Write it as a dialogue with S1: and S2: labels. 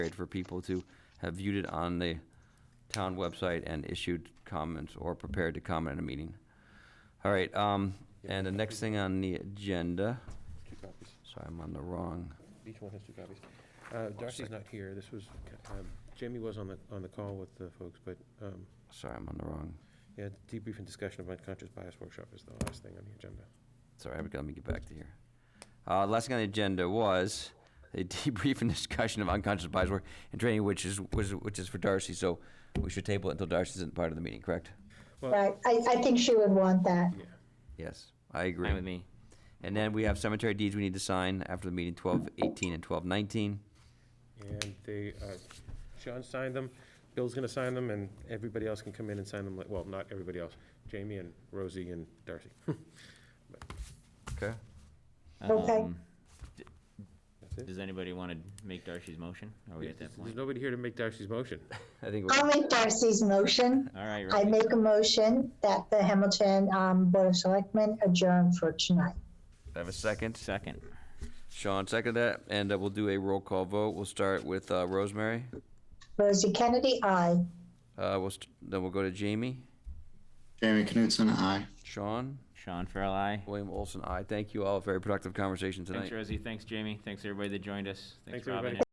S1: great for people to have viewed it on the town website and issued comments or prepared to comment at a meeting. All right, um, and the next thing on the agenda,
S2: Two copies.
S1: sorry, I'm on the wrong,
S2: Each one has two copies. Uh, Darcy's not here. This was, um, Jamie was on the, on the call with the folks, but, um,
S1: sorry, I'm on the wrong,
S2: yeah, debrief and discussion of unconscious bias workshop is the last thing on the agenda.
S1: sorry, I've got- let me get back to here. Uh, last thing on the agenda was a debrief and discussion of unconscious bias work and training, which is, was- which is for Darcy, so we should table it until Darcy isn't part of the meeting, correct?
S2: Well,
S3: Right, I, I think she would want that.
S2: yeah.
S1: Yes, I agree.
S4: Fine with me.
S1: And then we have cemetery deeds we need to sign after the meeting, twelve eighteen and twelve nineteen.
S2: And they, uh, Sean signed them, Bill's gonna sign them, and everybody else can come in and sign them, like- well, not everybody else, Jamie and Rosie and Darcy.
S1: Okay.
S3: Okay.
S4: Um,
S2: That's it.
S4: Does anybody want to make Darcy's motion? Are we at that
S2: There's
S4: point?
S2: nobody here to make Darcy's motion.
S1: I think
S3: I'll
S1: we're,
S3: make Darcy's motion.
S4: All right,
S3: I
S4: Robbie.
S3: make a motion that the Hamilton um, Board of Selectmen adjourn for tonight.
S1: I have a second.
S4: Second.
S1: Sean, second that, and uh, we'll do a roll call vote. We'll start with uh, Rosemary.
S3: Rosie Kennedy, aye.
S1: Uh, we'll st- then we'll go to Jamie,
S5: Jamie Knutson, aye.
S1: Sean,
S4: Sean Farrell, aye.
S1: William Olson. I thank you all. Very productive conversation tonight.
S4: Thanks, Rosie. Thanks, Jamie. Thanks, everybody that joined us.
S2: Thanks,
S4: Thanks, Robin.
S2: everybody.